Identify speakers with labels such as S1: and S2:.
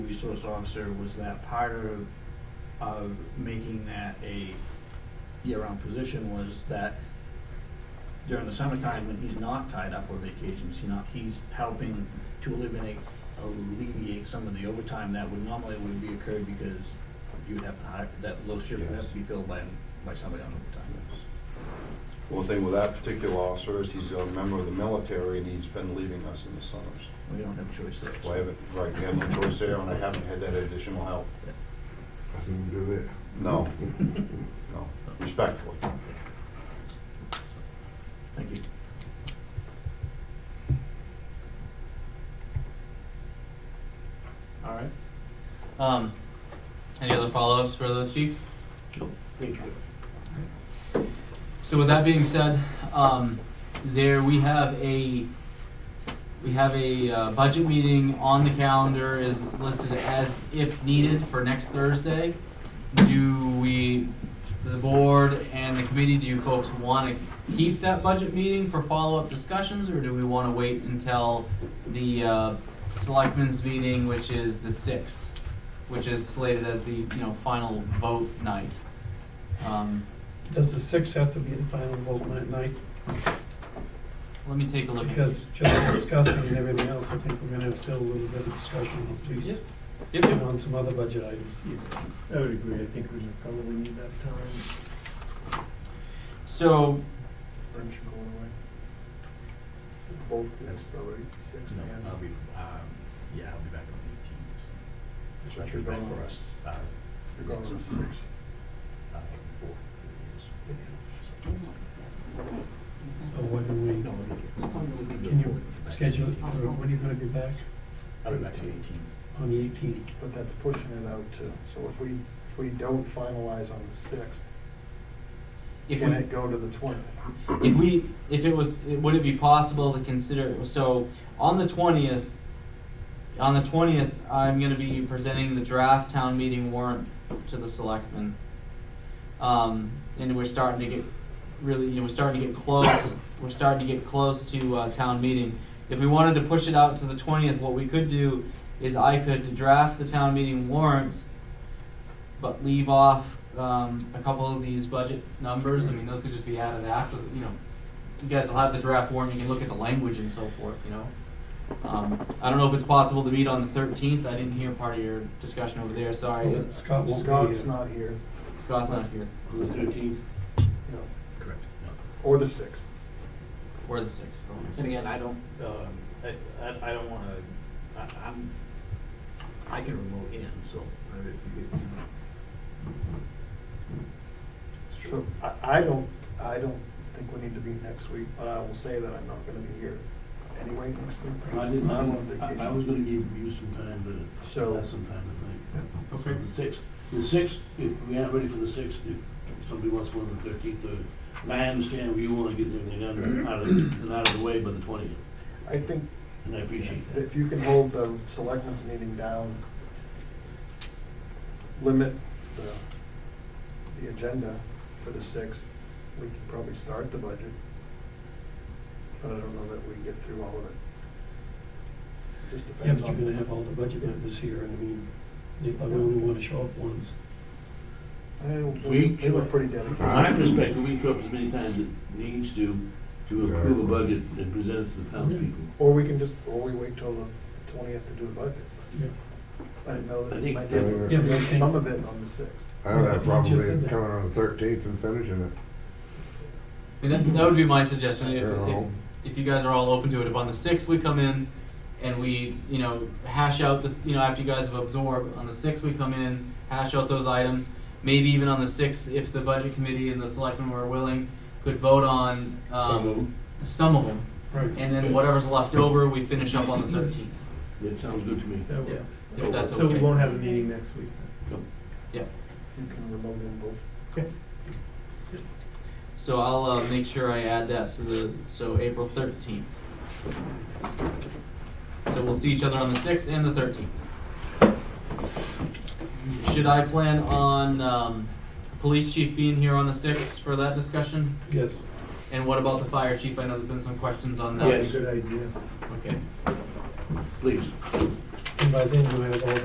S1: resource officer, was that part of, of making that a year-round position was that during the summertime, when he's not tied up or vacations, you know, he's helping to eliminate, alleviate some of the overtime that would normally would be occurred because you would have to hire, that low shift would have to be filled by, by somebody on overtime.
S2: One thing with that particular officer is he's a member of the military and he's been leaving us in the summers.
S1: We don't have a choice there. so-
S2: So I haven't, right, we have no choice there and I haven't had that additional help.
S3: Nothing to do there.
S2: No, no, respectfully.
S1: Thank you.
S4: All right. Um, any other follow-ups for the chief?
S1: Thank you.
S4: So with that being said, um, there, we have a, we have a uh, budget meeting on the calendar is listed as if needed for next Thursday. Do we, the board and the committee, do you folks want to keep that budget meeting for follow-up discussions? Or do we want to wait until the uh, selectmen's meeting, which is the sixth, which is slated as the, you know, final vote night? Um,
S5: Does the six have to be the final vote at night?
S4: Let me take a look. at
S5: Because just discussing and everything else, I think we're gonna have still a little bit of discussion on
S4: Yep.
S5: police
S4: Yep,
S5: and
S4: yep.
S5: on some other budget items.
S6: I would agree, I think we should probably need that time.
S4: So,
S6: Aren't you going away? Both next Thursday, six
S1: No,
S6: and.
S1: I'll be, um, yeah, I'll be back on the eighteenth.
S6: That's
S1: So I
S6: what you're
S1: should back
S6: going
S1: for
S6: on.
S1: us, uh,
S6: You're going on
S1: next,
S6: six.
S1: uh, four, three years.
S5: So when Oh, do we,
S1: No, we can do
S5: can
S1: it.
S5: you schedule, it, or when are you gonna be back?
S1: I'll be back on the eighteenth.
S5: On the eighteenth?
S6: But that's pushing it out too, so if we, if we don't finalize on the sixth,
S4: if
S6: can it
S4: we,
S6: go to the twentieth?
S4: if we, if it was, would it be possible to consider, so, on the twentieth, on the twentieth, I'm gonna be presenting the draft town meeting warrant to the selectmen. Um, and we're starting to get, really, you know, we're starting to get close, we're starting to get close to, uh, town meeting. If we wanted to push it out to the twentieth, what we could do is I could draft the town meeting warrant, but leave off, um, a couple of these budget numbers, I mean, those could just be added after, you know, you guys will have the draft warrant, you can look at the language and so forth, you know? Um, I don't know if it's possible to meet on the thirteenth, I didn't hear part of your discussion over there, sorry,
S5: Scott won't be
S6: Scott's
S5: here.
S6: not here,
S4: Scott's not here,
S6: no,
S1: Correct.
S6: or the sixth.
S4: or the sixth.
S7: And again, I don't, um, I, I- I don't wanna, I, I'm, I can remote in, so. uh, if you- if you-
S6: So I, I don't, I don't think we need to be next week, but I will say that I'm not gonna be here anyway next week.
S8: I didn't, I
S6: I'm
S8: was,
S6: on
S8: I I
S6: vacation.
S8: was gonna give you some time, but
S6: So-
S8: that's some time to think.
S4: Okay.
S8: The sixth, the sixth, if we aren't ready for the sixth, if somebody wants one on the thirteenth, or, and I understand you wanna get everything out
S6: Mm-hmm.
S8: of, out of, and out of the way by the twentieth,
S6: I think
S8: and I appreciate that.
S6: If you can hold the selectmen's meeting down, limit the, the agenda for the sixth, we can probably start the budget. But I don't know that we get through all of it. Just
S5: Yeah,
S6: depends
S5: but you're gonna
S6: on,
S5: have all the budget members here, and I mean, they probably only wanna show up once.
S6: I- they
S8: We-
S6: they were pretty dedicated.
S8: From my perspective, we show up as many times as it needs to, to approve a budget and present it to the townspeople.
S6: Or we can just, or we wait till the twentieth to do the budget.
S5: Yeah.
S6: I didn't know
S8: I
S6: that we
S8: think-
S6: might
S5: Yeah, but I
S6: do
S5: think-
S6: some of it on the sixth.
S3: I don't
S5: Yeah,
S3: have a
S5: you
S3: problem
S5: just
S3: with
S5: said
S3: it
S5: that.
S3: coming on the thirteenth and finishing it.
S4: I mean, that, that would be my suggestion, if,
S3: They're
S4: if,
S3: all-
S4: if you guys are all open to it, if on the sixth we come in and we, you know, hash out the, you know, after you guys have absorbed, on the sixth we come in, hash out those items, maybe even on the sixth, if the budget committee and the selectmen were willing, could vote on,
S8: Some of
S4: um,
S8: them.
S4: some of them,
S5: Right.
S4: and then whatever's left over, we finish up on the thirteenth,
S8: That sounds good to me.
S6: That
S4: Yeah.
S6: works.
S4: if that's okay.
S6: So we won't
S4: have a meeting.
S6: Next week.
S4: Yeah,
S6: You can remote in both.
S4: so I'll, uh, make sure I add that, so the, so April thirteenth. So we'll see each other on the sixth and the thirteenth. Should I plan on, um, police chief being here on the sixth for that discussion?
S5: Yes.
S4: And what about the fire chief? I know there's been some questions on that.
S8: Yes.
S6: idea.
S4: Okay.
S8: Please.
S5: And by then you have all